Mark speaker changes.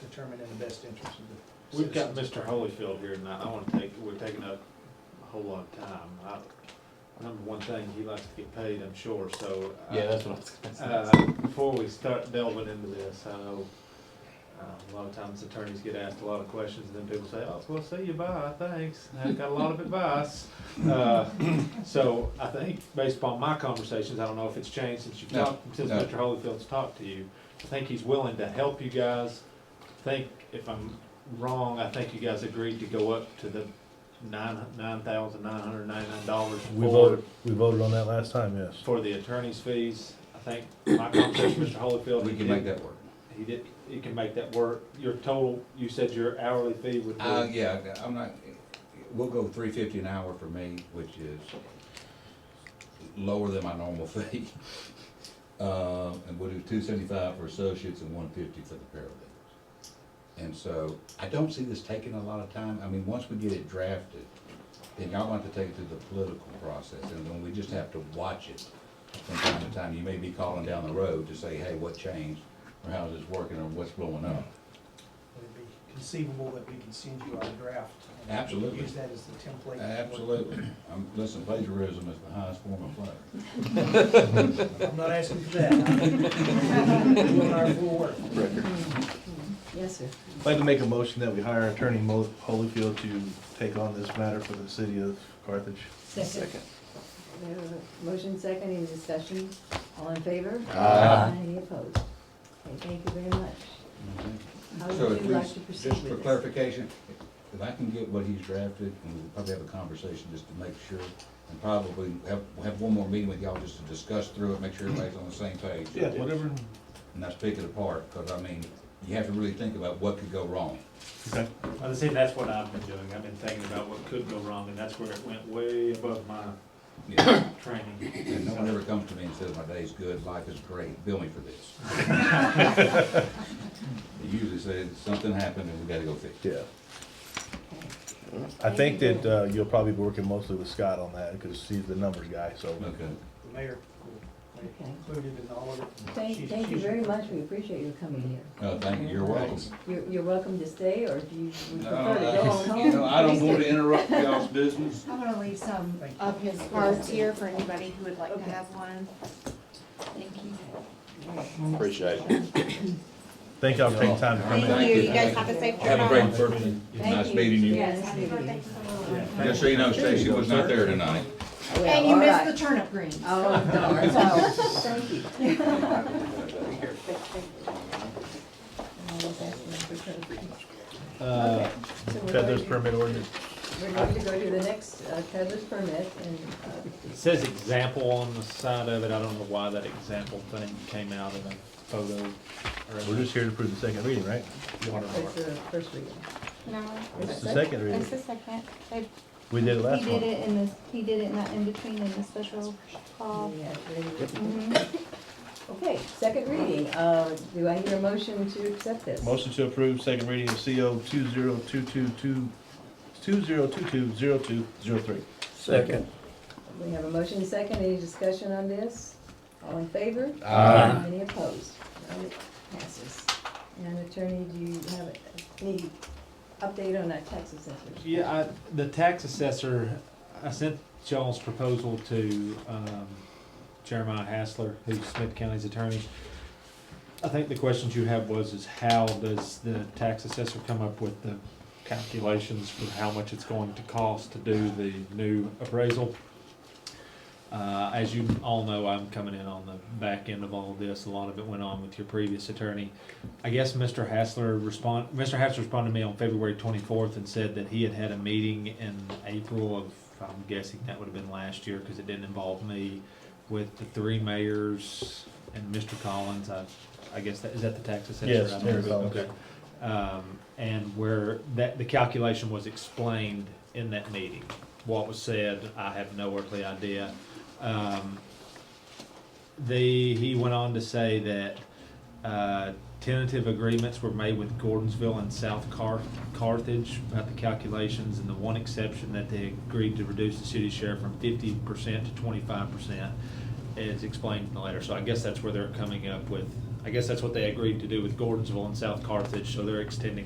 Speaker 1: determined in the best interest of the
Speaker 2: We've got
Speaker 1: citizens.
Speaker 2: Mr. Holyfield here tonight, I wanna take, we're taking up a whole lot of time. I, number one thing, he likes to get paid, I'm sure, so. uh,
Speaker 3: Yeah, that's what I was gonna say.
Speaker 2: Uh, before we start delving into this, I know, uh, a lot of times attorneys get asked a lot of questions, and then people say, oh, well, see you, bye, thanks, i got a lot of advice. Uh, So I think, based upon my conversations, I don't know if it's changed since you've
Speaker 3: No,
Speaker 2: talked, since
Speaker 3: no.
Speaker 2: Mr. Holyfield's talked to you, I think he's willing to help you guys. I think, if I'm wrong, I think you guys agreed to go up to the nine, nine thousand nine hundred ninety-nine dollars
Speaker 4: We
Speaker 2: for,
Speaker 4: voted, we voted on that last time, yes.
Speaker 2: for the attorney's fees. I think my conversation with Mr. Holyfield.
Speaker 3: We
Speaker 2: he
Speaker 3: can make
Speaker 2: did-
Speaker 3: that work.
Speaker 2: He did, he can make that work. Your total, you said your hourly fee would
Speaker 3: Uh,
Speaker 2: be,
Speaker 3: yeah, I'm not, we'll go three fifty an hour for me, which is lower than my normal fee. Uh, and we'll do two seventy-five for associates and one fifty for the paralegals. And so, I don't see this taking a lot of time, I mean, once we get it drafted, then y'all want to take it through the political process, and then we just have to watch it from time to time. You may be calling down the road to say, hey, what changed, or how's this working, or what's blowing
Speaker 1: Would
Speaker 3: up?
Speaker 1: it be conceivable that we could send you our draft? and
Speaker 3: Absolutely.
Speaker 1: Use that as the template?
Speaker 3: Absolutely. I'm, listen, plagiarism is the highest form of play.
Speaker 1: I'm not asking for that. I'm Doing our full work.
Speaker 5: Yes, sir.
Speaker 4: I'd like to make a motion that we hire Attorney Mo- Holyfield to take on this matter for the city of Carthage.
Speaker 5: Second. We have a Motion second, any discussion? All in favor?
Speaker 4: Uh,
Speaker 3: Aye.
Speaker 5: Any opposed? Okay, thank you very much. How
Speaker 3: So
Speaker 5: would
Speaker 3: if
Speaker 5: you
Speaker 3: we,
Speaker 5: like to proceed
Speaker 3: just for
Speaker 5: with this?
Speaker 3: clarification, if I can get what he's drafted, and we'll probably have a conversation just to make sure, and probably have, we'll have one more meeting with y'all just to discuss through it, make sure everybody's on the same page.
Speaker 4: Whatever,
Speaker 3: And not pick it apart, because I mean, you have to really think about what could go wrong.
Speaker 4: okay,
Speaker 2: I was saying, that's what I've been doing. I've been thinking about what could go wrong, and that's where it went way above my
Speaker 3: Yeah.
Speaker 2: training.
Speaker 3: And no one ever comes to me and says, my day's good, life is great, bill me for this. They usually say, something happened and we gotta go fix it.
Speaker 4: yeah.
Speaker 5: Okay.
Speaker 4: I think that, uh, you'll probably be working mostly with Scott on that, because he's the numbers guy, so.
Speaker 3: Okay.
Speaker 1: The mayor
Speaker 5: Okay.
Speaker 1: included in all of it.
Speaker 5: Thank,
Speaker 1: She's-
Speaker 5: thank you
Speaker 1: she's-
Speaker 5: very much, we appreciate you coming here.
Speaker 3: Oh, thank you, you're welcome.
Speaker 5: You're, you're welcome to stay, or do you would
Speaker 3: No,
Speaker 5: prefer to go on
Speaker 3: I-
Speaker 5: home?
Speaker 3: You know, I don't want to interrupt y'all's business.
Speaker 6: I'm gonna leave some
Speaker 1: Thank you.
Speaker 6: of his cards here for anybody who would like to
Speaker 5: Okay.
Speaker 6: have one. Thank you.
Speaker 7: Appreciate it.
Speaker 4: Thank y'all for taking time to come in.
Speaker 6: Thank you, you guys have a safe
Speaker 3: Have a
Speaker 6: trip.
Speaker 3: great birthday.
Speaker 5: Thank
Speaker 3: Nice meeting you.
Speaker 5: Yes,
Speaker 6: Happy
Speaker 5: meeting you.
Speaker 6: birthday to someone.
Speaker 3: Just so you know, Stacy was not there tonight.
Speaker 5: Well,
Speaker 6: And you
Speaker 5: all
Speaker 6: missed
Speaker 5: right.
Speaker 6: the turnip greens.
Speaker 5: Oh, darn, so, thank you. I was asking for something.
Speaker 4: Uh,
Speaker 5: So we're
Speaker 4: Peddler's
Speaker 5: going
Speaker 4: permit ordinance.
Speaker 5: to- We're going to go to the next uh, peddler's permit, and uh,
Speaker 2: It says example on the side of it. I don't know why that example thing came out in a photo. or in
Speaker 4: We're just here to prove the second reading, right?
Speaker 2: the water
Speaker 5: it's
Speaker 2: mark.
Speaker 5: the first reading.
Speaker 8: No,
Speaker 4: It's the second reading.
Speaker 8: it's the second. They-
Speaker 4: We did it
Speaker 8: He
Speaker 4: last
Speaker 8: did
Speaker 4: one.
Speaker 8: it in the, he did it in the in-between in the special call.
Speaker 5: Yeah, ready.
Speaker 8: Mhm.
Speaker 5: Okay, second reading, uh, do I hear a motion to accept this?
Speaker 4: Motion to approve second reading of CO two zero two two two, two zero two two zero two zero three.
Speaker 7: Second.
Speaker 5: We have a motion second, any discussion on this? All in favor?
Speaker 3: Aye.
Speaker 5: Any opposed? None, it passes. And attorney, do you have any update on that tax assessor?
Speaker 2: Yeah, I, the tax assessor, I sent y'all's proposal to, um, Jeremiah Hassler, who's Smith County's attorney. I think the questions you have was, is how does the tax assessor come up with the calculations for how much it's going to cost to do the new appraisal? Uh, as you all know, I'm coming in on the back end of all this, a lot of it went on with your previous attorney. I guess Mr. Hassler respond, Mr. Hassler responded to me on February twenty-fourth and said that he had had a meeting in April of, I'm guessing that would have been last year, cause it didn't involve me, with the three mayors and Mr. Collins, I, I guess that, is that the tax assessor?
Speaker 4: Yes,
Speaker 2: out there?
Speaker 4: Mr. Collins.
Speaker 2: Okay. Um, and where that, the calculation was explained in that meeting. What was said, I have no earthly idea. Um, the, he went on to say that, uh, tentative agreements were made with Gordonsville and South Car- Carthage about the calculations, and the one exception that they agreed to reduce the city share from fifty percent to twenty-five percent is explained in the letter. So I guess that's where they're coming up with I guess that's what they agreed to do with Gordonsville and South Carthage, so they're extending